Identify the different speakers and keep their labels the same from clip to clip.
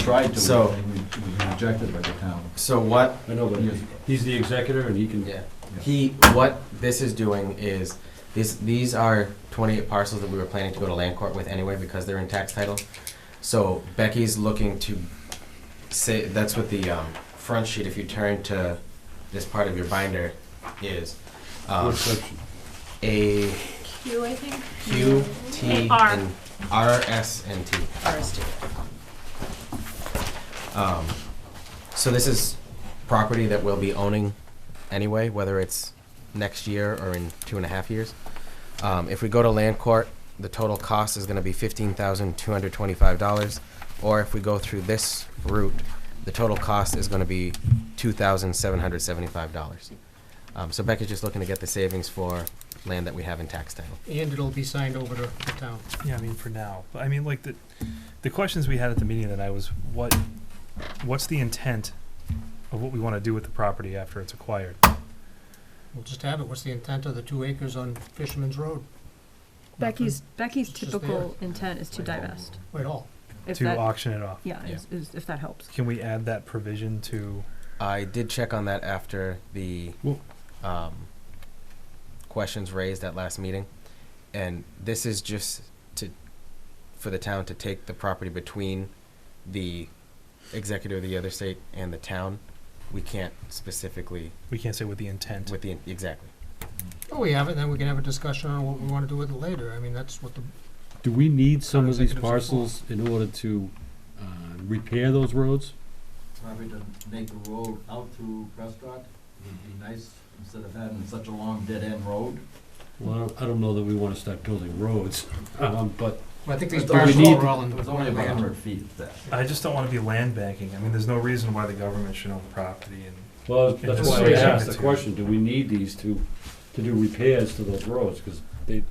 Speaker 1: tried to,
Speaker 2: So-
Speaker 1: and we it was rejected by the town.
Speaker 2: So what
Speaker 3: I know, but
Speaker 1: Yes.
Speaker 3: he's the executor and he can,
Speaker 4: Yeah. He, what this is doing is, this, these are twenty-eight parcels that we were planning to go to land court with anyway because they're in tax title. So Becky's looking to say, that's what the, um, front sheet, if you turn to this part of your binder, is, um,
Speaker 3: what section?
Speaker 4: A,
Speaker 5: Q, I think.
Speaker 4: Q, T,
Speaker 5: R.
Speaker 4: and R, S, and T.
Speaker 5: RSD.
Speaker 4: Um, so this is property that we'll be owning anyway, whether it's next year or in two and a half years. Um, if we go to land court, the total cost is gonna be fifteen thousand two hundred twenty-five dollars. Or if we go through this route, the total cost is gonna be two thousand seven hundred seventy-five dollars. Um, so Becca's just looking to get the savings for land that we have in tax title.
Speaker 6: And it'll be signed over to the town.
Speaker 7: Yeah, I mean for now. But I mean like the the questions we had at the meeting that I was what what's the intent of what we want to do with the property after it's acquired?
Speaker 6: We'll just have it. What's the intent of the two acres on Fisherman's Road?
Speaker 5: Becky's, Becky's
Speaker 6: It's just
Speaker 5: typical intent is to
Speaker 6: Like,
Speaker 5: divest,
Speaker 6: Nothing. Wait, all.
Speaker 5: if
Speaker 7: to uh,
Speaker 5: that,
Speaker 7: auction it off.
Speaker 5: yeah, is, is, if that helps.
Speaker 7: Can we add that provision to
Speaker 4: I did check on that after the
Speaker 7: Well-
Speaker 4: um, questions raised at last meeting, and this is just to for the town to take the property between the executor of the other state and the town. We can't specifically
Speaker 7: we can't say with the intent.
Speaker 4: with the exactly.
Speaker 6: Oh, we have it, then we can have a discussion on what we want to do with it later. I mean, that's what the,
Speaker 3: Do we need some of these
Speaker 6: Executive's
Speaker 3: parcels in order to uh, repair those roads?
Speaker 1: Probably to make the road out through Prescott would be nice, instead of having such a long dead-end road.
Speaker 3: Well, I don't, I don't know that we wanna start building roads, um, but
Speaker 6: I think these
Speaker 1: But we
Speaker 6: parcels
Speaker 3: need-
Speaker 6: are all in.
Speaker 1: It was only about a hundred feet of that.
Speaker 7: I just don't want to be land banking. I mean, there's no reason why the government should own the property. And
Speaker 3: Well, that's
Speaker 7: It's
Speaker 3: why I
Speaker 7: very
Speaker 3: asked the
Speaker 7: limited.
Speaker 3: question, do we need these to, to do repairs to those roads, cause they,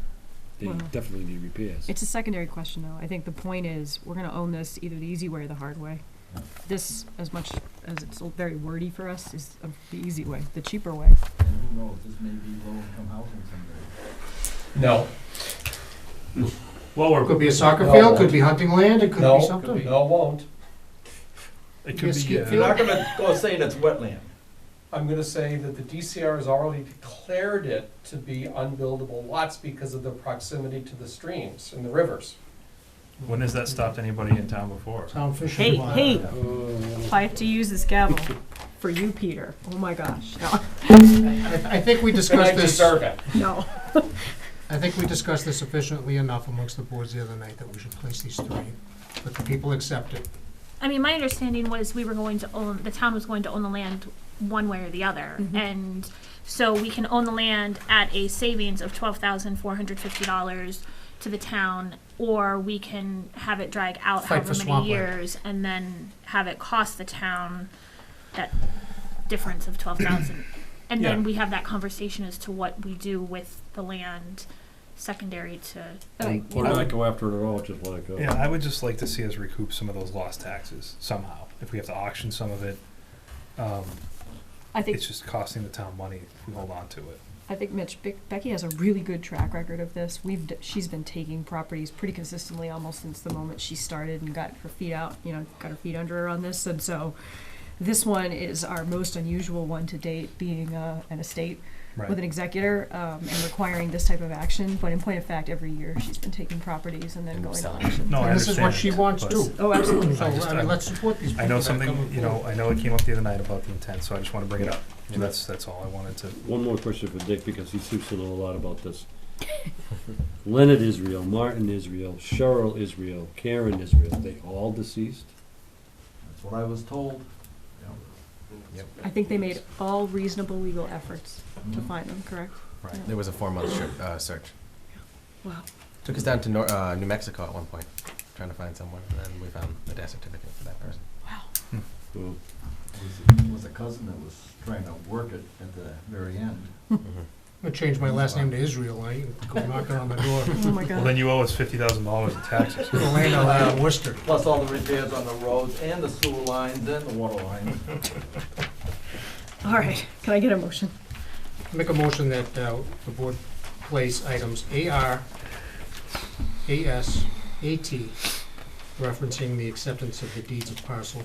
Speaker 3: they
Speaker 5: Well-
Speaker 3: definitely need repairs.
Speaker 5: It's a secondary question, though. I think the point is, we're gonna own this either the easy way or the hard way. This, as much as it's all very wordy for us, is uh, the easy way, the cheaper way.
Speaker 1: And who knows, this may be low-income housing someday.
Speaker 8: No,
Speaker 7: well, we're,
Speaker 6: Could be a soccer field, could be hunting land, it could
Speaker 8: No,
Speaker 6: be something.
Speaker 8: no, it won't.
Speaker 7: it
Speaker 6: be a
Speaker 7: could be.
Speaker 6: skip
Speaker 7: uh,
Speaker 6: field.
Speaker 1: I'm gonna go saying it's wetland.
Speaker 8: I'm gonna say that the DCR has already declared it to be unbuildable lots because of the proximity to the streams and the rivers.
Speaker 7: When has that stopped anybody in town before?
Speaker 6: Town
Speaker 5: Hey,
Speaker 6: Fisherman's.
Speaker 5: hey,
Speaker 3: Uh,
Speaker 5: if I have to use this gavel for you, Peter, oh my gosh, no,
Speaker 6: I I think we
Speaker 8: And I
Speaker 6: discussed this,
Speaker 8: deserve
Speaker 6: I
Speaker 8: it.
Speaker 5: no.
Speaker 6: think we discussed this sufficiently enough amongst the boards the other night that we should place these three. But the people accept it.
Speaker 9: I mean, my understanding was we were going to own, the town was going to own the land one way or the other.
Speaker 6: Mm-hmm.
Speaker 5: Mhm.
Speaker 9: And so we can own the land at a savings of twelve thousand four hundred fifty dollars to the town, or we can have it drag out
Speaker 6: Fight for
Speaker 9: however many
Speaker 6: swampland.
Speaker 9: years and then have it cost the town that difference of twelve thousand. And then
Speaker 7: Yeah.
Speaker 9: we have that conversation as to what we do with the land secondary to
Speaker 5: But I-
Speaker 3: Or not go after it at all, just let it go.
Speaker 7: Yeah, I would just like to see us recoup some of those lost taxes somehow. If we have to auction some of it, um,
Speaker 5: I think
Speaker 7: it's just costing the town money if we hold on to it.
Speaker 5: I think Mitch, Bec- Becky has a really good track record of this. We've, d- she's been taking properties pretty consistently almost since the moment she started and got her feet out, you know, got her feet under her on this. And so this one is our most unusual one to date, being uh, an estate
Speaker 7: Right.
Speaker 5: with an executor um, and requiring this type of action. But in point of fact, every year she's been taking properties and then
Speaker 4: And
Speaker 5: going to
Speaker 4: selling.
Speaker 5: auction.
Speaker 7: No, I
Speaker 6: And this is what
Speaker 7: understand
Speaker 6: she
Speaker 7: it,
Speaker 6: wants
Speaker 7: but
Speaker 6: too.
Speaker 5: Oh, absolutely.
Speaker 6: So,
Speaker 7: I just-
Speaker 6: I mean,
Speaker 7: I'm-
Speaker 6: let's support these people.
Speaker 7: I know
Speaker 6: that come
Speaker 7: something, you know,
Speaker 6: forward.
Speaker 7: I know it came up the other night about the intent, so I just wanna bring it up. And that's, that's all I wanted to.
Speaker 3: One more question for Dick, because he seems to know a lot about this. Leonard Israel, Martin Israel, Cheryl Israel, Karen Israel, they all deceased?
Speaker 1: That's what I was told.
Speaker 5: I think they made all reasonable legal efforts to
Speaker 1: Mhm.
Speaker 5: find them, correct?
Speaker 4: There was a four-month shir- uh, search.
Speaker 5: Wow.
Speaker 4: Took us down to Nor- uh, New Mexico at one point, trying to find someone, and then we found the death certificate for that person.
Speaker 3: Well,
Speaker 1: It was a cousin that was trying to work it at the very end.
Speaker 4: Mm-hmm.
Speaker 6: I'm gonna change my last name to Israel, I go knocking on the door.
Speaker 5: Oh my
Speaker 7: Well,
Speaker 5: God.
Speaker 7: then you owe us fifty thousand dollars in taxes.
Speaker 6: The land out of uh, Worcester.
Speaker 1: Plus all the repairs on the roads and the sewer lines and the water lines.
Speaker 5: All right. Can I get a motion?
Speaker 6: Make a motion that uh, the board place items AR, AS, AT, referencing the acceptance of the deeds of parcel